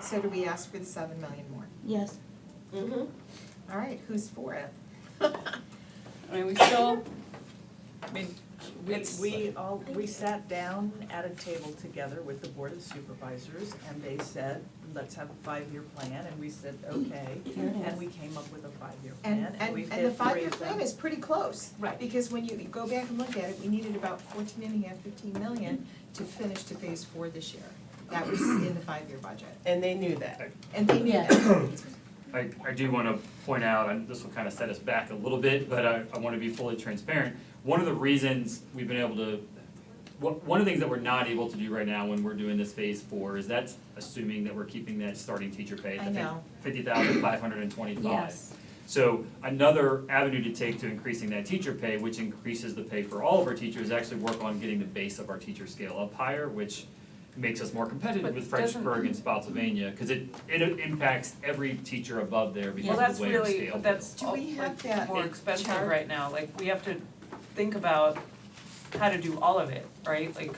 So do we ask for the seven million more? Yes. Mm-hmm. All right, who's for it? I mean, we still, I mean, We, it's, we all, we sat down at a table together with the Board of Supervisors and they said, let's have a five-year plan and we said, okay. Here it And is. we came up with a five-year And, plan and and, we've and hit the three five-year of plan them. is pretty close. Right. Because when you go back and look at it, we needed about fourteen and a half, fifteen million to finish to phase four this year. That was in the five-year budget. And they knew that. And they knew Yeah. that. I, I do wanna point out, and this will kind of set us back a little bit, but I, I wanna be fully transparent. One of the reasons we've been able to, one, one of the things that we're not able to do right now when we're doing this phase four is that's assuming that we're keeping that starting teacher pay I at the know. fifty thousand five hundred and twenty-five. Yes. So another avenue to take to increasing that teacher pay, which increases the pay for all of our teachers, is actually work on getting the base of our teacher scale up higher, which makes us more competitive But with doesn't- Frenchburg and Spotsylvania, cause it it impacts every teacher above there well, because of that's the way our scale. really, but that's Do all- we have like that more expensive chart? right now, like, we have to think about how to do all of it, right? Like,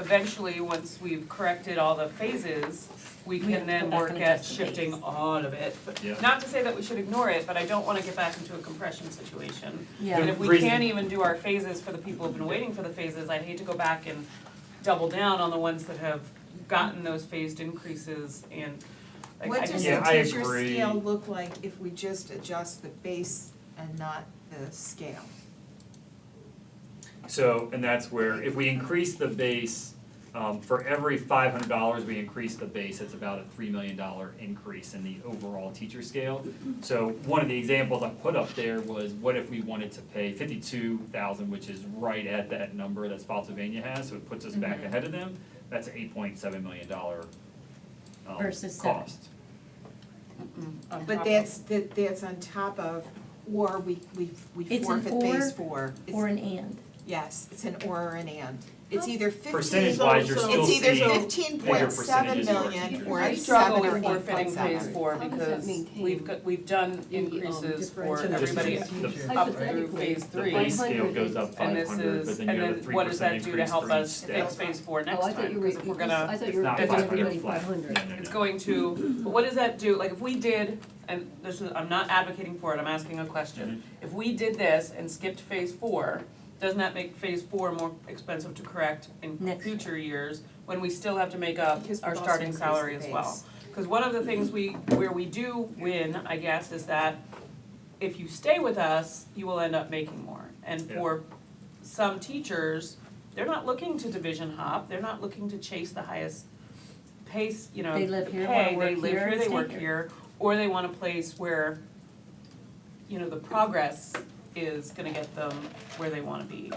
eventually, once we've corrected all the phases, we We have can to then go back work and at adjust the phase. shifting all of it. But Yeah. Not to say that we should ignore it, but I don't wanna get back into a compression situation. Yeah. And if we Reason- can't even do our phases for the people who've been waiting for the phases, I'd hate to go back and double down on the ones that have gotten those phased increases and like I What just. does Yeah, the I teacher agree. scale look like if we just adjust the base and not the scale? So, and that's where, if we increase the base, um, for every five hundred dollars we increase the base, it's about a three million dollar increase in the overall teacher scale. So one of the examples I put up there was, what if we wanted to pay fifty-two thousand, which is right at that number that Spotsylvania has, so it puts us Mm-hmm. back ahead of them. That's an eight point seven million dollar, um, Versus seven. cost. on top But of- that's, that, that's on top of, or we, we, we It's an forfeit phase or four. It's- Or an and. Yes, it's an or or an and. It's either fifteen. Percentage wise, you're also- still It's seeing either bigger fifteen point seven percentages of our million teachers. or I it's seven struggle or with eight forfeiting point phase seven. four How does that because maintain we've got, we've done the, um, increases for differential? Just everybody the- the up through Hypothetically, phase The three. base scale goes up And five this hundred, is, but then and you have a then three what does percent that do to increase help for each us step. fix phase four Oh, I next thought time? you were, Because if we're gonna, I thought It's you were not giving 500 everybody flat. five hundred. No, no, it's no. going to, but what does that do, like if we did, and this is, I'm not advocating for it, I'm asking a question. If we did this and skipped phase four, doesn't that make phase four more expensive to correct in Next year. future years when we still have to make up Because our we've also starting increased salary the as well? base. Because one of the things we, where we do win, I guess, is that if you stay with us, you will end up making more. And Yeah. for some teachers, they're not looking to division hop, they're not looking to chase the highest pace, you know, They live here, wanna pay, they work live here, here, they stay work here. here, or they want a place where, you know, the progress is gonna get them where they wanna be.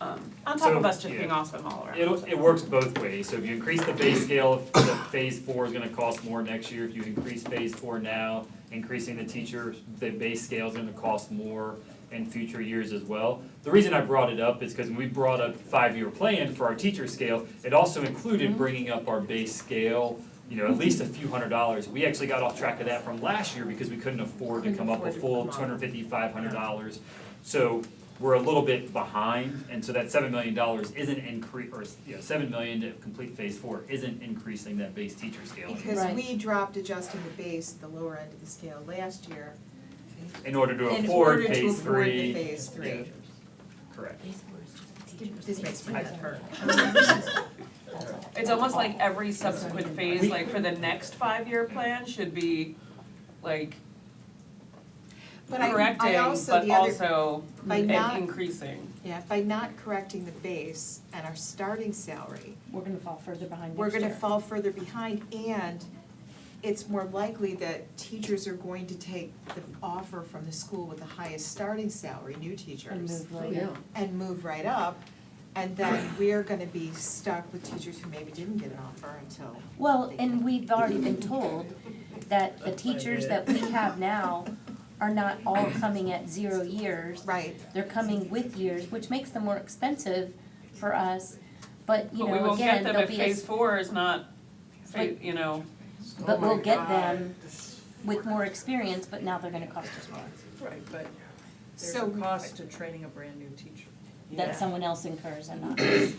Um, on top So, of us just yeah. being awesome all around. It'll, it works both ways, so if you increase the base scale, the phase four is gonna cost more next year, if you increase phase four now, increasing the teacher, the base scale is gonna cost more in future years as well. The reason I brought it up is because we brought up five-year plan for our teacher scale, it also included bringing up our base scale, you know, at least a few hundred dollars, we actually got off track of that from last year because we couldn't afford to Couldn't come up afford with to full come two up. hundred fifty, five hundred dollars. So we're a little bit behind, and so that seven million dollars isn't incre- or, you know, seven million to complete phase four isn't increasing that base teacher scale anymore. Because Right. we dropped adjusting the base, the lower end of the scale last year. In order to in afford order to afford phase the three. phase three. yeah, Correct. This makes my head hurt. It's almost like every subsequent phase, like for the next five-year plan should be like But I- I correcting, also- but the other- also by and not- increasing. Yeah, by not correcting the base and our starting salary, We're gonna fall further behind we're next year. gonna fall further behind and it's more likely that teachers are going to take the offer from the school with the highest starting salary, new teachers. And move Oh, later. yeah. and move right up. And then we're gonna be stuck with teachers who maybe didn't get an offer until. Well, and we've already been told that the teachers that we have now are not all coming at zero years. Right. They're coming with years, which makes them more expensive for us, but you But we know, won't get again, them there'll if be a, phase four is not, fa- Like- you know, oh but we'll get them with more experience, but now they're gonna cost us more. Right, but there's So- a cost to training a brand new teacher. That someone else incurs and not. Correct.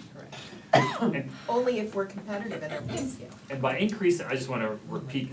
And, Only if we're competitive in our pay scale. and by increase, I just wanna repeat